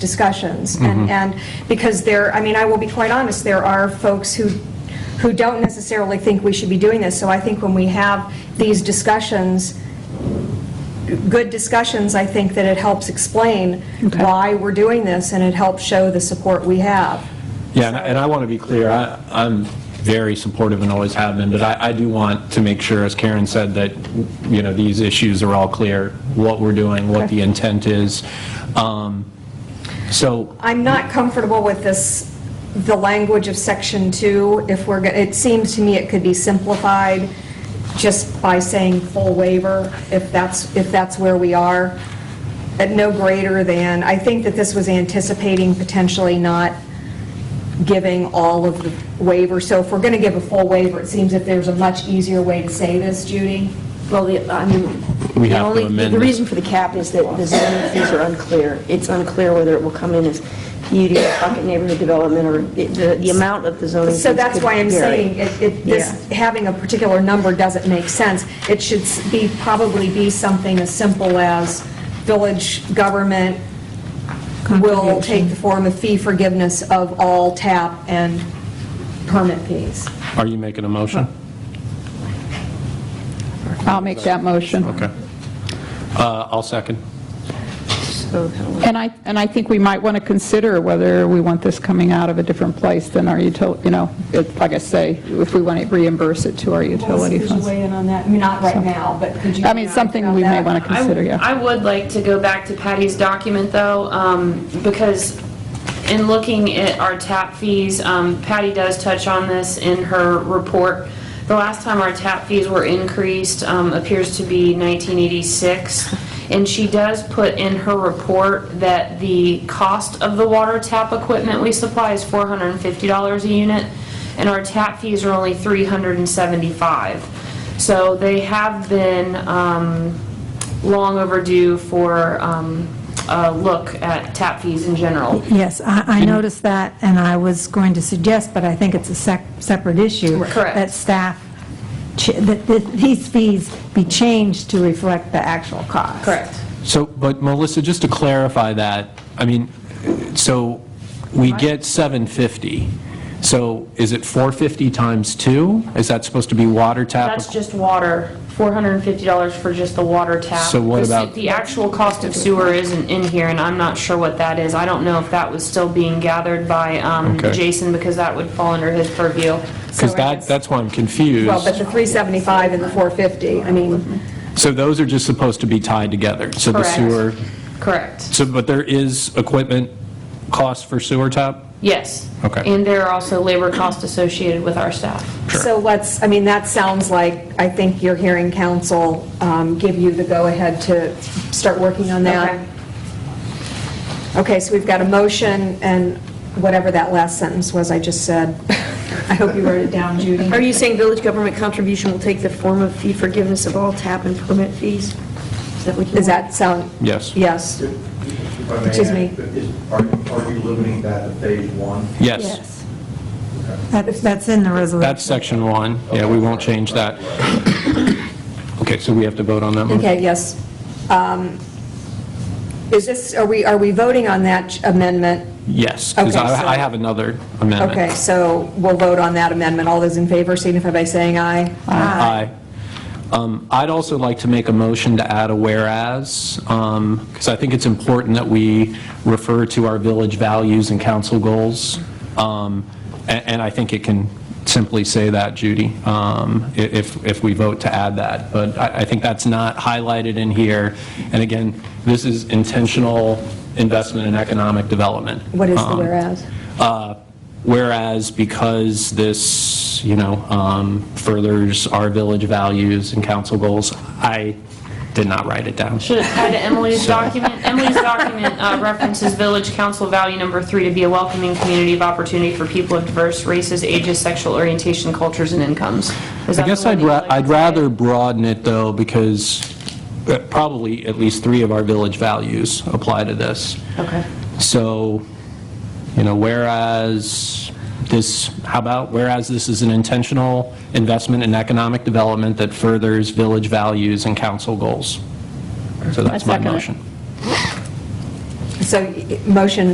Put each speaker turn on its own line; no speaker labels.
discussions. And, and because there, I mean, I will be quite honest, there are folks who, who don't necessarily think we should be doing this. So I think when we have these discussions, good discussions, I think that it helps explain
Okay.
why we're doing this, and it helps show the support we have.
Yeah, and I- and I want to be clear, I- I'm very supportive and always have been, but I I do want to make sure, as Karen said, that, you know, these issues are all clear, what we're doing, what the intent is. Um, So,
I'm not comfortable with this, the language of Section 2, if we're, go- it seems to me it could be simplified just by saying full waiver, if that's, if that's where we are, at no greater than, I think that this was anticipating potentially not giving all of the waiver, so if we're going to give a full waiver, it seems that there's a much easier way to say this, Judy.
Well, the, I mean,
We
the
have to
only,
amend
the
it.
reason for the cap is that the zoning fees are unclear. It's unclear whether it will come in as PUD, bucket neighborhood development, or the- the, the amount of the zoning fees
So that's
could
why I'm
vary.
saying, it- it- this,
Yeah.
having a particular number doesn't make sense. It should s- be, probably be something as simple as village government will take the form of fee forgiveness of all tap and permit fees.
are you making a motion?
I'll make that motion.
Okay. Uh, I'll second.
So that'll-
And I, and I think we might want to consider whether we want this coming out of a different place than our utility, you know, it- like I say, if we want to reimburse it to our utility funds.
in on that? Not right now, but could you?
I mean, something we may want to consider, yeah.
I would like to go back to Patty's document, though, um, because in looking at our tap fees, um, Patty does touch on this in her report. The last time our tap fees were increased um, appears to be 1986, and she does put in her report that the cost of the water tap equipment we supply is $450 a unit, and our tap fees are only 375. So they have been um, long overdue for um, a look at tap fees in general.
Yes, I I noticed that, and I was going to suggest, but I think it's a sec- separate issue.
Correct.
That staff, ch- that that these fees be changed to reflect the actual cost.
So, but Melissa, just to clarify that, I mean, so we get 750, so is it 450 times 2? Is that supposed to be water tap?
That's just water, $450 for just the water tap.
So what
The se-
about-
The actual cost of sewer isn't in here, and I'm not sure what that is. I don't know if that was still being gathered by um,
Okay.
Jason, because that would fall under his purview.
Because that, that's why I'm confused.
Well, but the 375 and the 450, I mean,
So those are just supposed to be tied together? So the
Correct.
sewer,
Correct,
so, but there is equipment cost for sewer tap?
yes.
Okay.
And there are also labor costs associated with our staff.
So let's, I mean, that sounds like, I think you're hearing council um, give you the go-ahead to start working on that.
Okay.
Okay, so we've got a motion and whatever that last sentence was I just said. I hope you wrote it down, Judy.
Are you saying village government contribution will take the form of fee forgiveness of all tap and permit fees? Is that what you
Does
want?
that sound?
Yes.
Yes.
If I may
Excuse
add,
me.
is- Are you- are you limiting that to phase one?
Yes,
Yes. That- That's in the resolution.
that's section one. Yeah, we won't change that. Okay, so we have to vote on that one?
Okay, yes. Um, Is this, are we, are we voting on that amendment?
Yes, because
Okay, so-
I I have another amendment.
Okay, so we'll vote on that amendment. All those in favor signify by saying aye.
Aye. Um, I'd also like to make a motion to add a whereas, because I think it's important that we refer to our village values and council goals, Um, a- and I think it can simply say that, Judy, um, i- if if we vote to add that. But I I think that's not highlighted in here, and again, this is intentional investment in economic development.
What is the
Um,
whereas?
uh, Whereas because this, you know, um, furthers our village values and council goals, I did not write it down.
Should it tie to Emily's document? Emily's document uh, references Village Council Value Number Three to be a welcoming community of opportunity for people of diverse races, ages, sexual orientation, cultures, and incomes. Is that
I guess
the one
I'd
that you'd
ra-
like to
I'd
say?
rather broaden it, though, because uh, probably at least three of our village values apply to this.
Okay.
So, you know, whereas this, how about, whereas this is an intentional investment in economic development that furthers village values and council goals. So that's my
second it.
motion.
So, y- motion